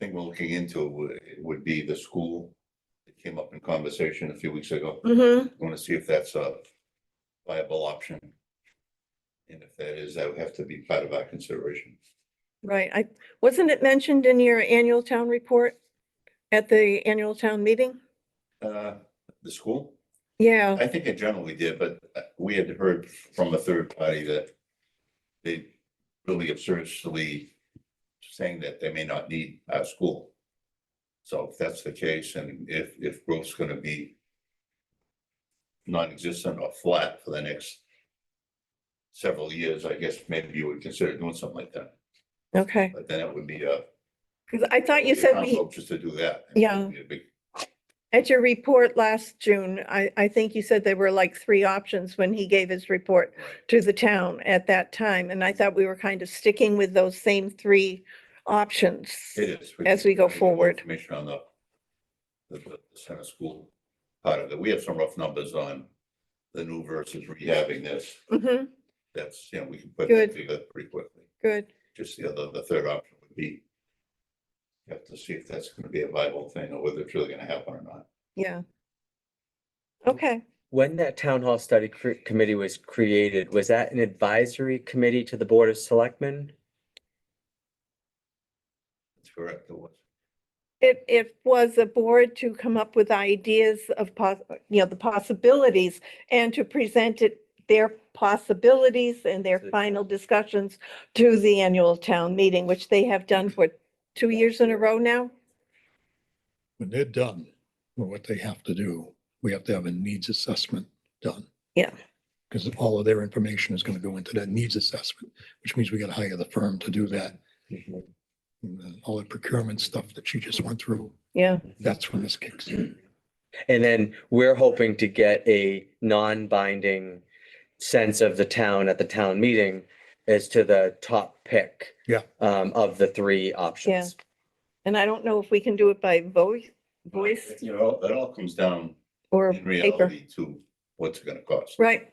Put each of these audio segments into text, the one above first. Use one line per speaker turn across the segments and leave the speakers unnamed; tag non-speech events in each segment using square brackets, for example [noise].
we're looking into would, would be the school. It came up in conversation a few weeks ago.
Mm-hmm.
Want to see if that's a viable option. And if that is, that would have to be part of our consideration.
Right. I, wasn't it mentioned in your annual town report? At the annual town meeting?
Uh, the school,
Yeah,
I think it generally did, but uh, we had heard from a third party that they really absurdly saying that they may not need our school. So if that's the case, and if, if growth's gonna be non-existent or flat for the next several years, I guess maybe you would consider doing something like that.
okay.
But then it would be a.
'Cause I thought you said we,
Just to do that.
Yeah.
It'd be-
at your report last June, I, I think you said there were like three options when he gave his report to the town at that time. And I thought we were kind of sticking with those same three options.
It is.
As
can-
we go
can get more
forward.
Information on the, the, the center school part of it. We have some rough numbers on the new versus rehabbing this.
Mm-hmm,
That's, you know, we can put
Good.
that together pretty quickly.
good.
Just the other, the third option would be you have to see if that's gonna be a viable thing or whether it's really gonna happen or not.
Yeah. Okay,
When that town hall study cr- committee was created, was that an advisory committee to the Board of Selectmen?
That's correct. It was.
it, it was a board to come up with ideas of poss, you know, the possibilities and to present it, their possibilities and their
To the
final discussions to the annual town meeting, which they have done for two years in a row now.
when they're done, with what they have to do, we have to have a needs assessment done.
Yeah.
Because all of their information is going to go into that needs assessment, which means we got to hire the firm to do that. And then All the procurement stuff that she just went through,
Yeah,
that's when this kicks in.
And then we're hoping to get a non-binding sense of the town at the town meeting as to the top pick.
Yeah.
Um, of the three options.
and I don't know if we can do it by voice, voice
You know, it all comes down
or
in
paper.
reality to what's it gonna cost.
Right,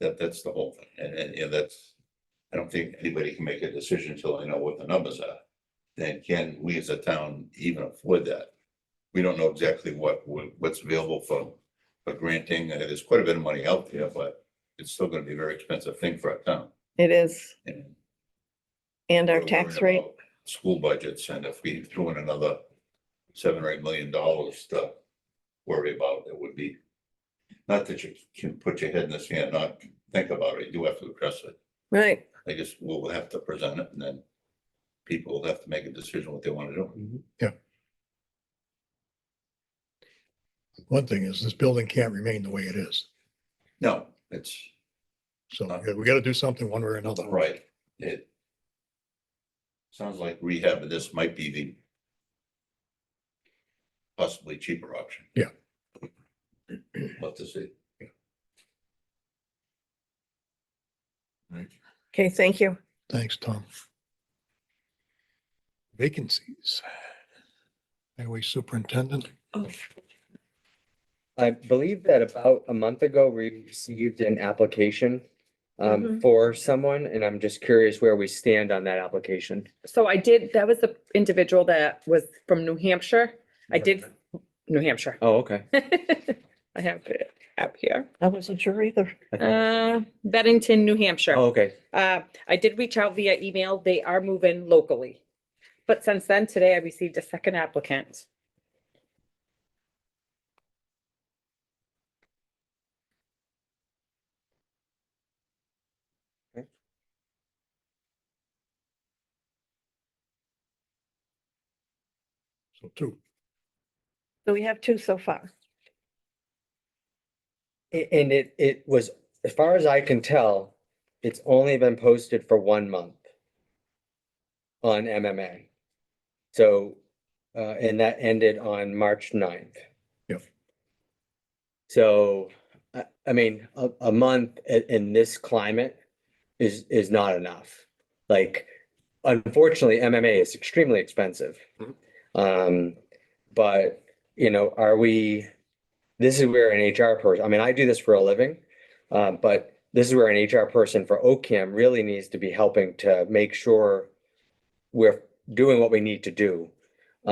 That, that's the whole thing. And, and, yeah, that's, I don't think anybody can make a decision until they know what the numbers are. Then can we as a town even afford that? We don't know exactly what, what- what's available for, for granting. Uh, There's quite a bit of money out there, but it's still gonna be a very expensive thing for our town.
it is.
And
And our
we're
tax
worried
rate,
about School budgets, and if we threw in another seven or eight million dollars to worry about, it would be. Not that you can put your head in the sand, not think about it, you do have to address it.
right.
I guess we'll have to present it and then people will have to make a decision what they want to do.
One thing is this building can't remain the way it is.
No, it's
So yeah, we got to do something one way or another.
right. It sounds like rehab of this might be the possibly cheaper option.
Yeah.
Love to see.
Okay, thank you.
Thanks, Tom. Vacancies. Highway superintendent.
I believe that about a month ago, we received an application um,
Mhm.
for someone, and I'm just curious where we stand on that application.
So I did, that was the individual that was from New Hampshire. I did, New Hampshire. [laughs]
Oh, okay.
I have it out here.
I wasn't sure either.
I thought-
Uh, Bennington, New
Oh,
Hampshire.
okay.
Uh, I did reach out via email. They are moving locally. But since then, today I received a second applicant.
So two.
So we have two so far.
A- And it, it was, as far as I can tell, it's only been posted for one month on MMA. So, uh, and that ended on March 9th.
Yep.
So, I, I mean, a, a month in, in this climate is, is not enough. Like, unfortunately, MMA is extremely expensive. Um, but, you know, are we? this is where an HR person, I mean, I do this for a living, uh, but this is where an HR person for OCAM really needs to be helping to make sure we're doing what we need to do